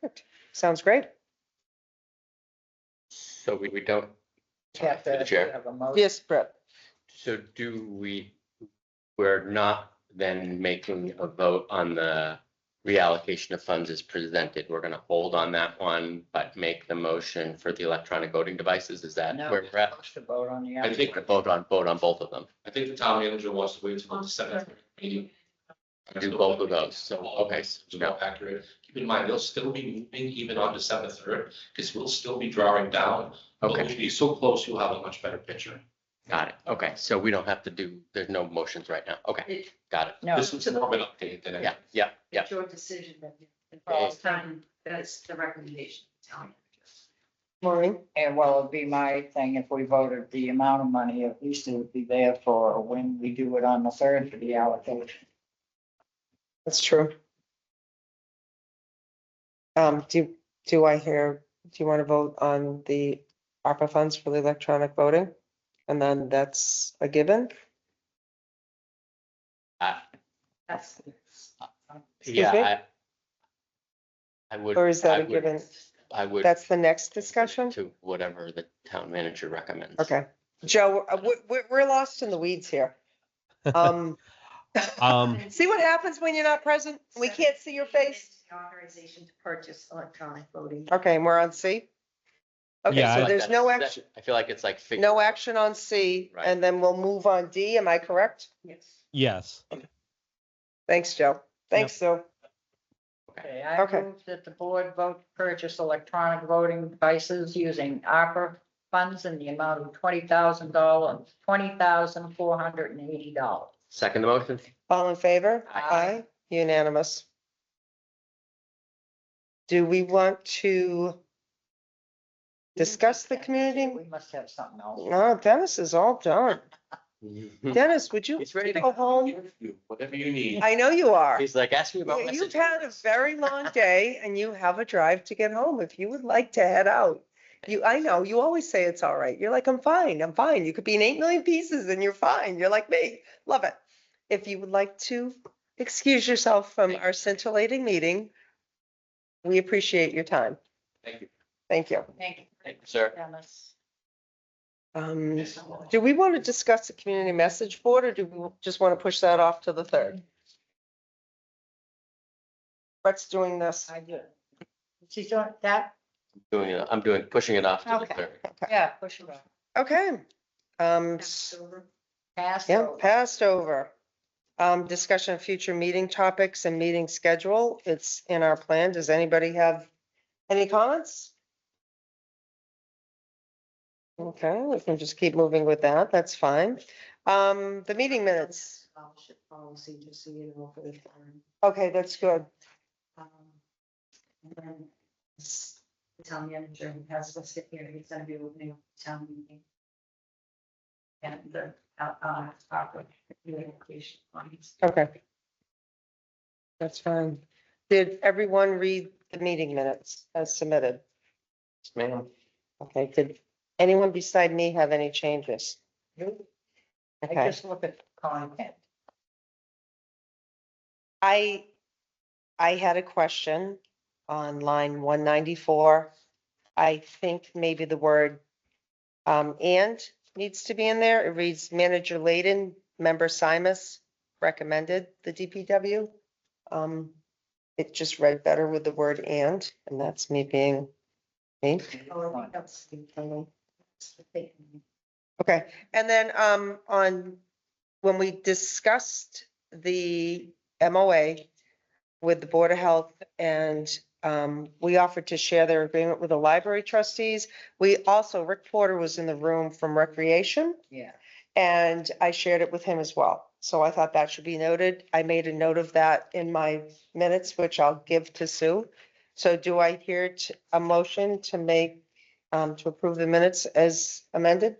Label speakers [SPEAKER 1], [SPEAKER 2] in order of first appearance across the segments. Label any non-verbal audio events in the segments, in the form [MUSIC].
[SPEAKER 1] Perfect. Sounds great.
[SPEAKER 2] So we, we don't.
[SPEAKER 3] Have
[SPEAKER 2] Through the
[SPEAKER 3] to
[SPEAKER 2] chair.
[SPEAKER 3] have a motion.
[SPEAKER 1] Yes, Brett.
[SPEAKER 2] So do we, we're not then making a vote on the reallocation of funds as presented. We're going to hold on that one, but make the motion for the electronic voting devices. Is that
[SPEAKER 3] No.
[SPEAKER 2] where we're at?
[SPEAKER 3] Motion to vote on the.
[SPEAKER 2] I think we vote on, vote on both of them.
[SPEAKER 4] I think the town manager wants to wait until the seventh meeting.
[SPEAKER 2] Do both of those. So, okay,
[SPEAKER 4] It's
[SPEAKER 2] no.
[SPEAKER 4] more accurate. Keep in mind, they'll still be moving even on December third, because we'll still be drawing down. But
[SPEAKER 2] Okay,
[SPEAKER 4] We'll be so close, you'll have a much better picture.
[SPEAKER 2] got it. Okay, so we don't have to do, there's no motions right now. Okay, got it.
[SPEAKER 3] No,
[SPEAKER 4] This was more of an update than.
[SPEAKER 2] Yeah, yeah, yeah.
[SPEAKER 5] It's your decision that you, the
[SPEAKER 2] Yeah.
[SPEAKER 5] first time, that's the recommendation. of the town manager.
[SPEAKER 1] Maureen?
[SPEAKER 3] and well, it'd be my thing if we voted the amount of money, at least it would be there for when we do it on the third for the allocation.
[SPEAKER 1] That's true. Um, do, do I hear, do you want to vote on the ARPA funds for the electronic voting? And then that's a given?
[SPEAKER 5] That's.
[SPEAKER 2] Yeah.
[SPEAKER 1] me?
[SPEAKER 2] I- I would.
[SPEAKER 1] Or is that
[SPEAKER 2] I
[SPEAKER 1] a
[SPEAKER 2] would-
[SPEAKER 1] given?
[SPEAKER 2] I would.
[SPEAKER 1] That's the next
[SPEAKER 2] [LAUGHS]
[SPEAKER 1] discussion?
[SPEAKER 2] To whatever the town manager recommends.
[SPEAKER 1] Okay. Joe, we're, we're, we're lost in the
[SPEAKER 6] [LAUGHS]
[SPEAKER 1] weeds here. Um,
[SPEAKER 6] Um,
[SPEAKER 1] see what happens when you're not present? We can't see your face?
[SPEAKER 5] The Authorization to purchase electronic voting.
[SPEAKER 1] Okay, and we're on C? Okay,
[SPEAKER 6] Yeah, I
[SPEAKER 1] so
[SPEAKER 6] like
[SPEAKER 1] there's
[SPEAKER 2] That-
[SPEAKER 1] no
[SPEAKER 2] that-
[SPEAKER 1] action,
[SPEAKER 2] I feel like it's like. fig-
[SPEAKER 1] no action on C,
[SPEAKER 2] Right.
[SPEAKER 1] and then we'll move on D, am I correct?
[SPEAKER 5] Yes.
[SPEAKER 6] yes,
[SPEAKER 1] Thanks, Joe. Thanks, Sue.
[SPEAKER 3] Okay, I
[SPEAKER 1] Okay.
[SPEAKER 3] move that the board vote to purchase electronic voting devices using ARPA funds in the amount of twenty thousand dollars, twenty thousand four hundred and eighty dollars.
[SPEAKER 2] Second the motion? [LAUGHS]
[SPEAKER 1] All in favor?
[SPEAKER 3] Aye.
[SPEAKER 1] Unanimous. Do we want to discuss the community?
[SPEAKER 3] We must have something else.
[SPEAKER 1] No, Dennis is all done. Dennis, would you
[SPEAKER 2] Hmm. He's ready to
[SPEAKER 1] go home?
[SPEAKER 4] You- Whatever you need.
[SPEAKER 1] I know you are.
[SPEAKER 2] He's like, ask me about.
[SPEAKER 1] You- You've
[SPEAKER 2] messages."
[SPEAKER 1] had a very long day and you have a drive to get home. If you would like to head out. You, I know, you always say it's all right. You're like, I'm fine, I'm fine. You could be in eight million pieces and you're fine. You're like me. Love it. If you would like to excuse yourself from our scintillating meeting, we appreciate your time.
[SPEAKER 4] Thank you.
[SPEAKER 1] Thank you.
[SPEAKER 3] Thank you,
[SPEAKER 2] Thank you, Sir,
[SPEAKER 3] Dennis.
[SPEAKER 1] Um, do we want to discuss the community message board or do we just want to push that off to the third? Brett's doing this.
[SPEAKER 3] I do. She's doing that,
[SPEAKER 2] doing, it- I'm doing, pushing it off to the
[SPEAKER 3] Okay.
[SPEAKER 2] third.
[SPEAKER 3] yeah, push it off.
[SPEAKER 1] Okay. Um,
[SPEAKER 3] Pass
[SPEAKER 1] yeah,
[SPEAKER 3] over.
[SPEAKER 1] passed over. Um, discussion of future meeting topics and meeting schedule. It's in our plan. Does anybody have any comments? Okay, we can just keep moving with that. That's fine. Um, the meeting minutes.
[SPEAKER 5] Scholarship policy, just so you know, for the town.
[SPEAKER 1] Okay, that's good.
[SPEAKER 5] Um, And then s- the town manager who has listed here, he's gonna be opening up the town meeting. And the, uh, uh, proper communication lines.
[SPEAKER 1] Okay. That's fine. Did everyone read the meeting minutes as submitted?
[SPEAKER 2] Ma'am.
[SPEAKER 1] Okay, did anyone beside me have any changes?
[SPEAKER 3] I
[SPEAKER 1] Okay,
[SPEAKER 3] just look at content.
[SPEAKER 1] I, I had a question on line one ninety-four. I think maybe the word um, and needs to be in there. It reads manager Layden, member Simus recommended the DPW. Um, it just read better with the word and, and that's me being me.
[SPEAKER 5] Oh, I think that's the thing. That's the thing.
[SPEAKER 1] Okay, and then um on, when we discussed the MOA with the Board of Health and um we offered to share their agreement with the library trustees. We also, Rick Porter was in the room from Recreation
[SPEAKER 3] Yeah.
[SPEAKER 1] and I shared it with him as well. So I thought that should be noted. I made a note of that in my minutes, which I'll give to Sue. So do I hear t- a motion to make, um to approve the minutes as amended?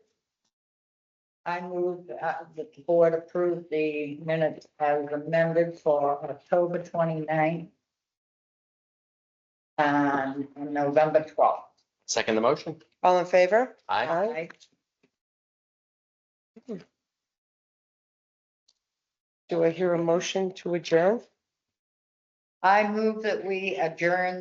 [SPEAKER 3] I move uh, that the board approve the minutes as amended for October 29th um, and November twelfth.
[SPEAKER 2] Second the motion?
[SPEAKER 1] All in favor?
[SPEAKER 2] Aye.
[SPEAKER 1] Aye. Do I hear a motion to adjourn?
[SPEAKER 3] I move that we adjourn